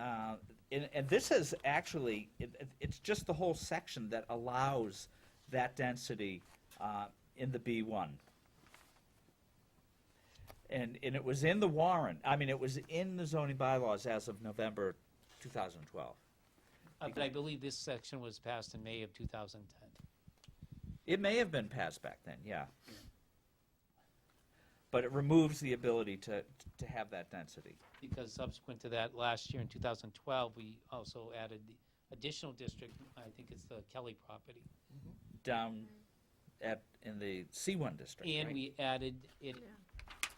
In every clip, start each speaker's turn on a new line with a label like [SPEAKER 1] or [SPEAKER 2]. [SPEAKER 1] Uh, and, and this is actually, it, it- it's just the whole section that allows that density uh, in the B1. And, and it was in the warrant, I mean, it was in the zoning bylaws as of November 2012.
[SPEAKER 2] Uh, But I believe this section was passed in May of 2010.
[SPEAKER 1] It may have been passed back then, yeah. But it removes the ability to, to have that density.
[SPEAKER 2] Because subsequent to that, last year in 2012, we also added the additional district, I think it's the Kelly property.
[SPEAKER 1] down at, in the C1 district,
[SPEAKER 2] And
[SPEAKER 1] right?
[SPEAKER 2] we added it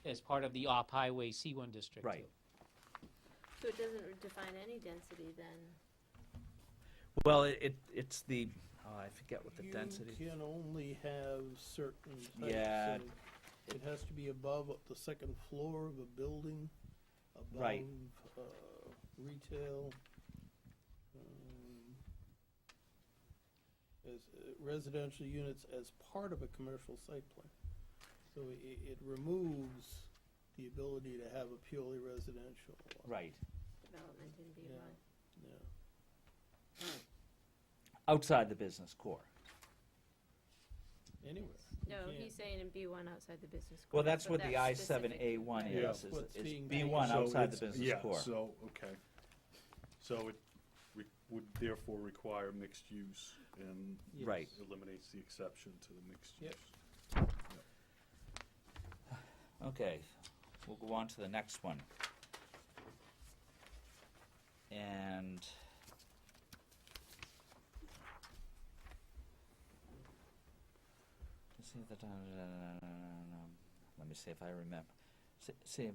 [SPEAKER 2] as part of the off-highway C1 district.
[SPEAKER 1] Right.
[SPEAKER 2] too.
[SPEAKER 3] So it doesn't define any density then?
[SPEAKER 1] Well, it, it- it's the, oh, I forget what the density,
[SPEAKER 4] You can only have certain types.
[SPEAKER 1] Yeah.
[SPEAKER 4] and It has to be above the second floor of a building, above,
[SPEAKER 1] Right.
[SPEAKER 4] uh, retail. um, As uh, residential units as part of a commercial site plan. So it, it removes the ability to have a purely residential. uh,
[SPEAKER 1] right,
[SPEAKER 3] Development in B
[SPEAKER 4] Yeah.
[SPEAKER 3] one.
[SPEAKER 4] Yeah.
[SPEAKER 1] outside the business core.
[SPEAKER 4] Anywhere. You
[SPEAKER 3] No,
[SPEAKER 4] can't-
[SPEAKER 3] he's saying in B one outside the business.
[SPEAKER 1] Well,
[SPEAKER 3] core,
[SPEAKER 1] that's what
[SPEAKER 3] but
[SPEAKER 1] the
[SPEAKER 3] specific.
[SPEAKER 1] I-7A1
[SPEAKER 4] Yeah.
[SPEAKER 1] is, is-
[SPEAKER 4] What's
[SPEAKER 1] is
[SPEAKER 4] being
[SPEAKER 1] B1
[SPEAKER 4] done.
[SPEAKER 5] So
[SPEAKER 1] outside the
[SPEAKER 5] it's-
[SPEAKER 1] business core.
[SPEAKER 5] Yeah, so, okay. So it re- would therefore require mixed use and
[SPEAKER 4] Yes.
[SPEAKER 1] Right.
[SPEAKER 5] eliminates the exception to the mixed use.
[SPEAKER 4] Yep.
[SPEAKER 1] Okay, we'll go on to the next one. And. Let's see if the- Let me see if I remember. S- See,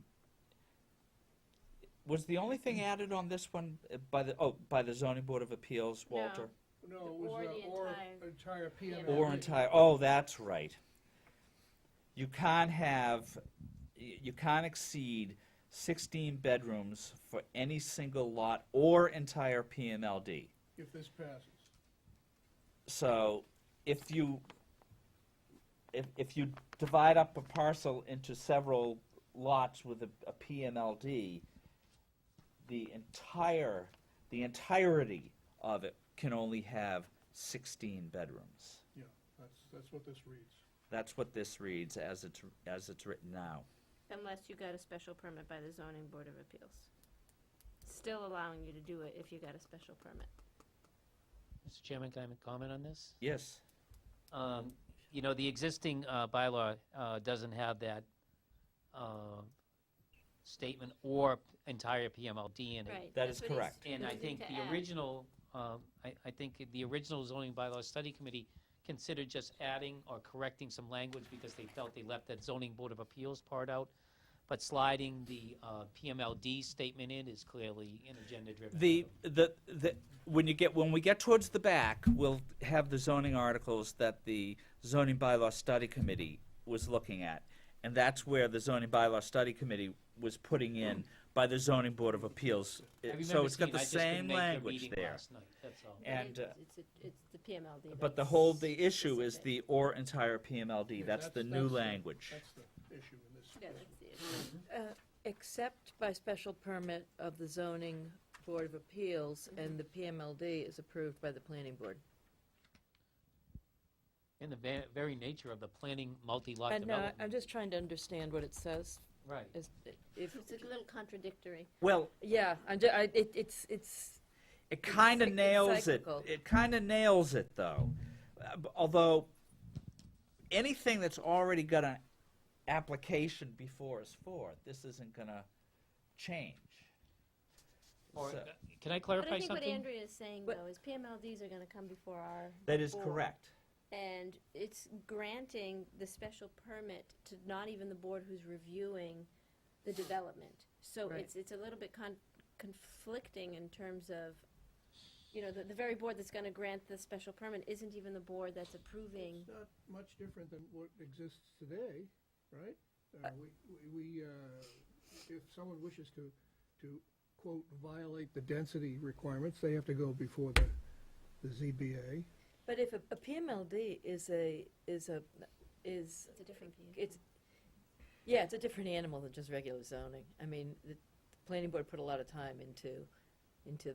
[SPEAKER 1] was the only thing added on this one uh, by the, oh, by the zoning board of appeals,
[SPEAKER 3] No.
[SPEAKER 1] Walter?
[SPEAKER 6] No,
[SPEAKER 3] The-
[SPEAKER 6] it was
[SPEAKER 3] or
[SPEAKER 6] the,
[SPEAKER 3] the
[SPEAKER 6] or
[SPEAKER 3] entire-
[SPEAKER 6] entire PML.
[SPEAKER 3] Yeah.
[SPEAKER 1] Or entire, oh, that's right. You can't have, y- you can't exceed sixteen bedrooms for any single lot or entire PMLD.
[SPEAKER 6] If this passes.
[SPEAKER 1] So if you, if, if you divide up a parcel into several lots with a, a PMLD, the entire, the entirety of it can only have sixteen bedrooms.
[SPEAKER 6] Yeah, that's, that's what this reads.
[SPEAKER 1] That's what this reads as it's, as it's written now.
[SPEAKER 3] Unless you got a special permit by the zoning board of appeals. Still allowing you to do it if you got a special permit.
[SPEAKER 2] Mr. Chairman, can I make a comment on this?
[SPEAKER 1] Yes.
[SPEAKER 2] Um, You know, the existing uh, bylaw uh, doesn't have that uh, statement or entire PMLD in it.
[SPEAKER 3] Right.
[SPEAKER 1] That
[SPEAKER 3] that's
[SPEAKER 1] is
[SPEAKER 3] what he's
[SPEAKER 1] correct.
[SPEAKER 2] And I
[SPEAKER 3] choosing
[SPEAKER 2] think
[SPEAKER 3] to
[SPEAKER 2] the
[SPEAKER 3] add.
[SPEAKER 2] original, um, I I think the original zoning bylaw study committee considered just adding or correcting some language because they felt they left that zoning board of appeals part out. But sliding the uh, PMLD statement in is clearly an agenda-driven.
[SPEAKER 1] The,
[SPEAKER 2] item.
[SPEAKER 1] the, the, when you get, when we get towards the back, we'll have the zoning articles that the zoning bylaw study committee was looking at. And that's where the zoning bylaw study committee was putting in by the zoning board of appeals.
[SPEAKER 2] I
[SPEAKER 1] It- So
[SPEAKER 2] remember
[SPEAKER 1] it's got
[SPEAKER 2] seeing-
[SPEAKER 1] the
[SPEAKER 2] I just couldn't
[SPEAKER 1] same
[SPEAKER 2] make the
[SPEAKER 1] language
[SPEAKER 2] meeting
[SPEAKER 1] there.
[SPEAKER 2] last night, that's all.
[SPEAKER 3] But it
[SPEAKER 1] and,
[SPEAKER 3] is,
[SPEAKER 1] uh,
[SPEAKER 3] It's, a- it's the PMLD.
[SPEAKER 1] But the
[SPEAKER 3] that's
[SPEAKER 1] whole, the issue is
[SPEAKER 3] specific.
[SPEAKER 1] the or entire PMLD. That's the new language.
[SPEAKER 6] That's the issue in this.
[SPEAKER 3] Yeah, that's the issue.
[SPEAKER 7] Except by special permit of the zoning board of appeals, and the PMLD is approved by the planning board.
[SPEAKER 2] And the ve- very nature of the planning multi-lot
[SPEAKER 7] And uh,
[SPEAKER 2] development.
[SPEAKER 7] I'm just trying to understand what it says,
[SPEAKER 2] Right.
[SPEAKER 7] is, if,
[SPEAKER 3] It's a little contradictory.
[SPEAKER 1] Well,
[SPEAKER 7] yeah, I'm, ju- I, it, it's, it's,
[SPEAKER 1] It kind of
[SPEAKER 7] cyc- it's
[SPEAKER 1] nails it.
[SPEAKER 7] cyclical.
[SPEAKER 1] It kind of nails it, though. Uh, b- although anything that's already got an application before is for it, this isn't going to change.
[SPEAKER 2] Or,
[SPEAKER 1] So-
[SPEAKER 2] uh, can I
[SPEAKER 3] But I
[SPEAKER 2] clarify
[SPEAKER 3] think what
[SPEAKER 2] something?
[SPEAKER 3] Andrea is saying
[SPEAKER 7] But-
[SPEAKER 3] though is PMLDs are gonna come before our.
[SPEAKER 1] that is
[SPEAKER 3] board.
[SPEAKER 1] correct.
[SPEAKER 3] And it's granting the special permit to not even the board who's reviewing the development. So
[SPEAKER 7] Right.
[SPEAKER 3] it's, it's a little bit con- conflicting in terms of, you know, the, the very board that's gonna grant the special permit isn't even the board that's approving.
[SPEAKER 6] It's not much different than what exists today, right? Uh, we, we- we, uh, if someone wishes to, to quote, violate the density requirements, they have to go before the, the ZBA.
[SPEAKER 7] but if a a PMLD is a, is a, is,
[SPEAKER 3] It's a different view.
[SPEAKER 7] it's, yeah, it's a different animal than just regular zoning. I mean, the the planning board put a lot of time into, into